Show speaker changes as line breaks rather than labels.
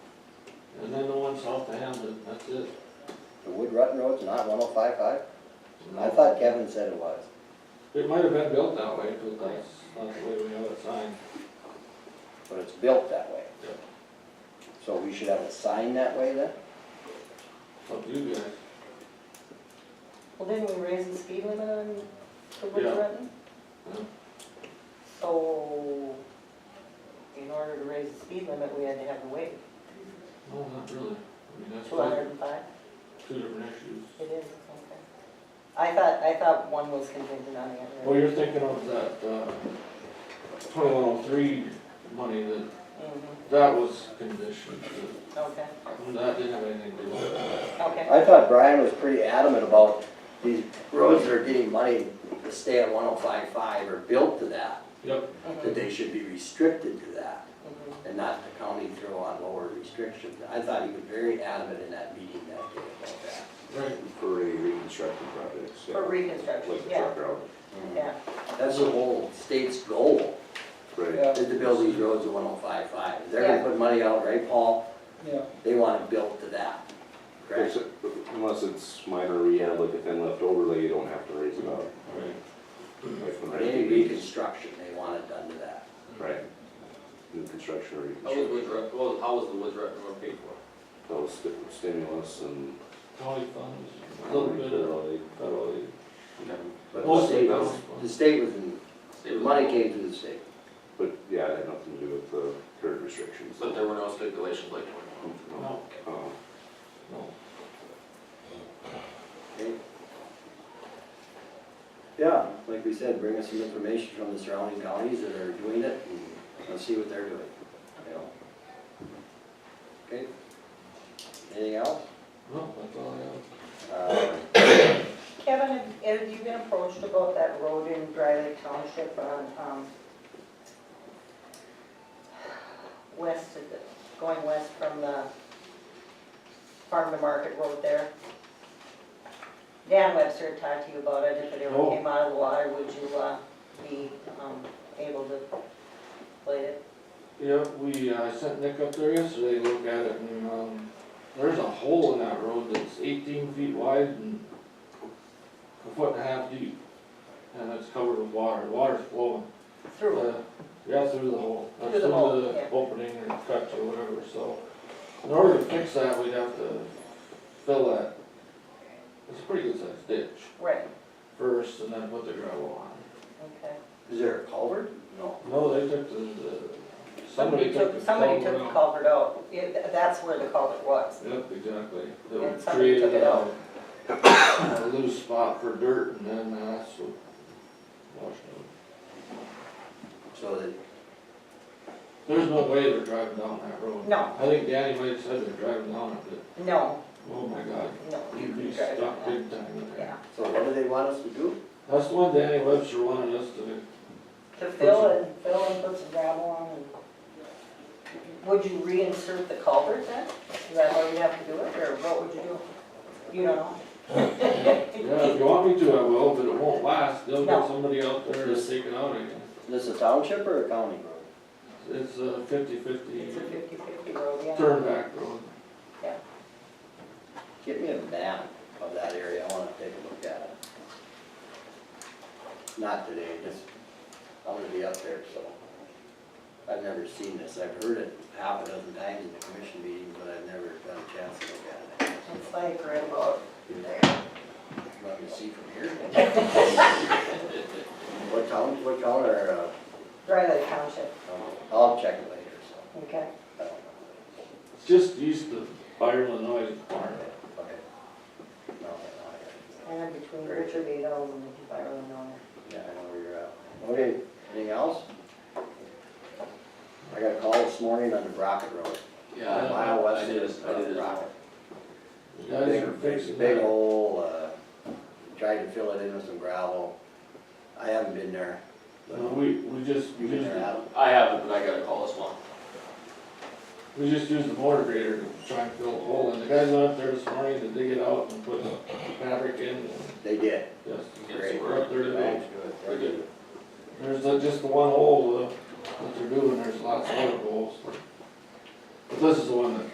comes off the Hamden, that's it.
The Wood Rutten Road's not one oh five five? I
No.
thought Kevin said it was.
It might have been built that way, but that's not the way we have it signed.
But it's built that way.
Yeah.
So we should have it signed that way then?
It's up to you guys.
Well, didn't we raise the speed limit on the Wood
Yeah.
Rutten?
Yeah.
So, in order to raise the speed limit, we had to have a waive,
No, not really. I mean, that's
two
two,
hundred and five,
two different issues.
it is, okay. I thought, I thought one was contingent on the
Well,
other.
you're thinking of that, uh, twenty-one oh three money that,
Mhm.
that was conditioned, that-
Okay,
that didn't have anything to do with it.
okay,
I thought Brian was pretty adamant about these roads that are getting money to stay at one oh five five or built to that,
Yep,
that
mhm,
they should be restricted to that
mhm.
and not the county throw on lower restrictions. I thought he was very adamant in that meeting that day about that.
right.
For a reconstructed project, so.
for
Like
reconstruction,
the
yeah,
truck route,
yeah,
That's the whole state's goal,
right,
is to build these roads at one oh five five. They're gonna put money out, right, Paul?
Yeah.
They want it built to that, correct?
Except- unless it's minor rehab, like a thin left overlay, you don't have to raise it up.
Right. Mm-hmm.
Like when
But any
I-
reconstruction, they want it done to that.
Right. New construction or
How was
reconstruction,
Woods Run, well, how was the Woods Run Road paid for?
that was sti- stimulus and. uh,
County funds, a little bit of federal aid.
But the
Mostly
state
federal
was, the
funds.
state was, in-
State
the
was
money
involved,
came to the state.
But yeah, it had nothing to do with the current restrictions.
But there were no stipulations like twenty-one.
No,
No,
uh,
no.
okay? Yeah, like we said, bring us some information from the surrounding counties that are doing it and let's see what they're doing, you know? Okay? Anything else?
No, that's all I have.
Uh,
Kevin, have- have you been approached about that road in Dry Lake Township on, um, west of the, going west from the farm to market road there? Dan Webster talked to you about it, if it ever
Oh.
came out of the water, would you, uh, be, um, able to play it?
Yeah, we, uh, sent Nick up there yesterday to look at it and, um, there's a hole in that road that's eighteen feet wide and a foot and a half deep. And it's covered with water, water's flowing.
Through it?
Uh, Yeah, through the hole. or
Through the hole, yeah.
Opening or cut or whatever, so in order to fix that, we'd have to fill that. It's a pretty good sized ditch
Right,
first and then put the gravel on.
okay.
Is there a culvert? No.
No, they took the, the,
Somebody took,
the
somebody
culvert
took the
out.
culvert out, It- that's where the culvert was.
Yep, exactly.
And
That
somebody took
created
it
a, a loose spot for dirt and then that's what washed it.
So that
There's no way they're driving down that road.
No.
I think Danny might have said they're driving down it, but,
No,
oh my god,
no, you
you'd be
can drive
stuck
on
big time in
that.
there.
Yeah,
So what do they want us to do?
That's the one Danny Webster wanted us to do.
to fill and, fill and put some gravel on and. Would you reinsert the culvert then? Is that how you'd have to do it, or what would you do? You don't know?
Yeah, if you want me to, I will, but it won't last. They'll
No.
get somebody out there to take it out again.
This a township or a county road?
It's a fifty-fifty
It's a fifty-fifty road, yeah.
turn back road.
Get me a map of that area, I wanna take a look at it. Not today, just, I'm gonna be up there, so. I've never seen this, I've heard it half a dozen times in the commission meeting, but I've never got a chance to look at it.
It's like right about there.
Let me see from here. What town, what town or, uh,
Dry Lake Township,
oh, I'll check it later, so.
okay?
I don't know.
It's just east of Byron, Illinois, corner.
Okay. No, I-
And then between Richard Beadle and Byron Miller.
Yeah, I know where you're at. Okay, anything else? I got a call this morning on the Brockett Road.
Yeah, I-
Mile
I
west
did,
of
as- I did as well.
Brockett.
You guys are fixing
Big, big
that.
hole, uh, tried to fill it in with some gravel. I haven't been there. but-
Uh, We, we just, we
You been
just
there, Adam?
I haven't, but I got a call this morning.
We just used the motor grader to try and fill a hole, and the guys went up there this morning to dig it out and put fabric in,
They did.
yes.
Yes,
Great.
We're
we're-
up there today.
They're good.
There's the- just the one hole, uh, that they're doing, there's lots of other holes. But this is the one that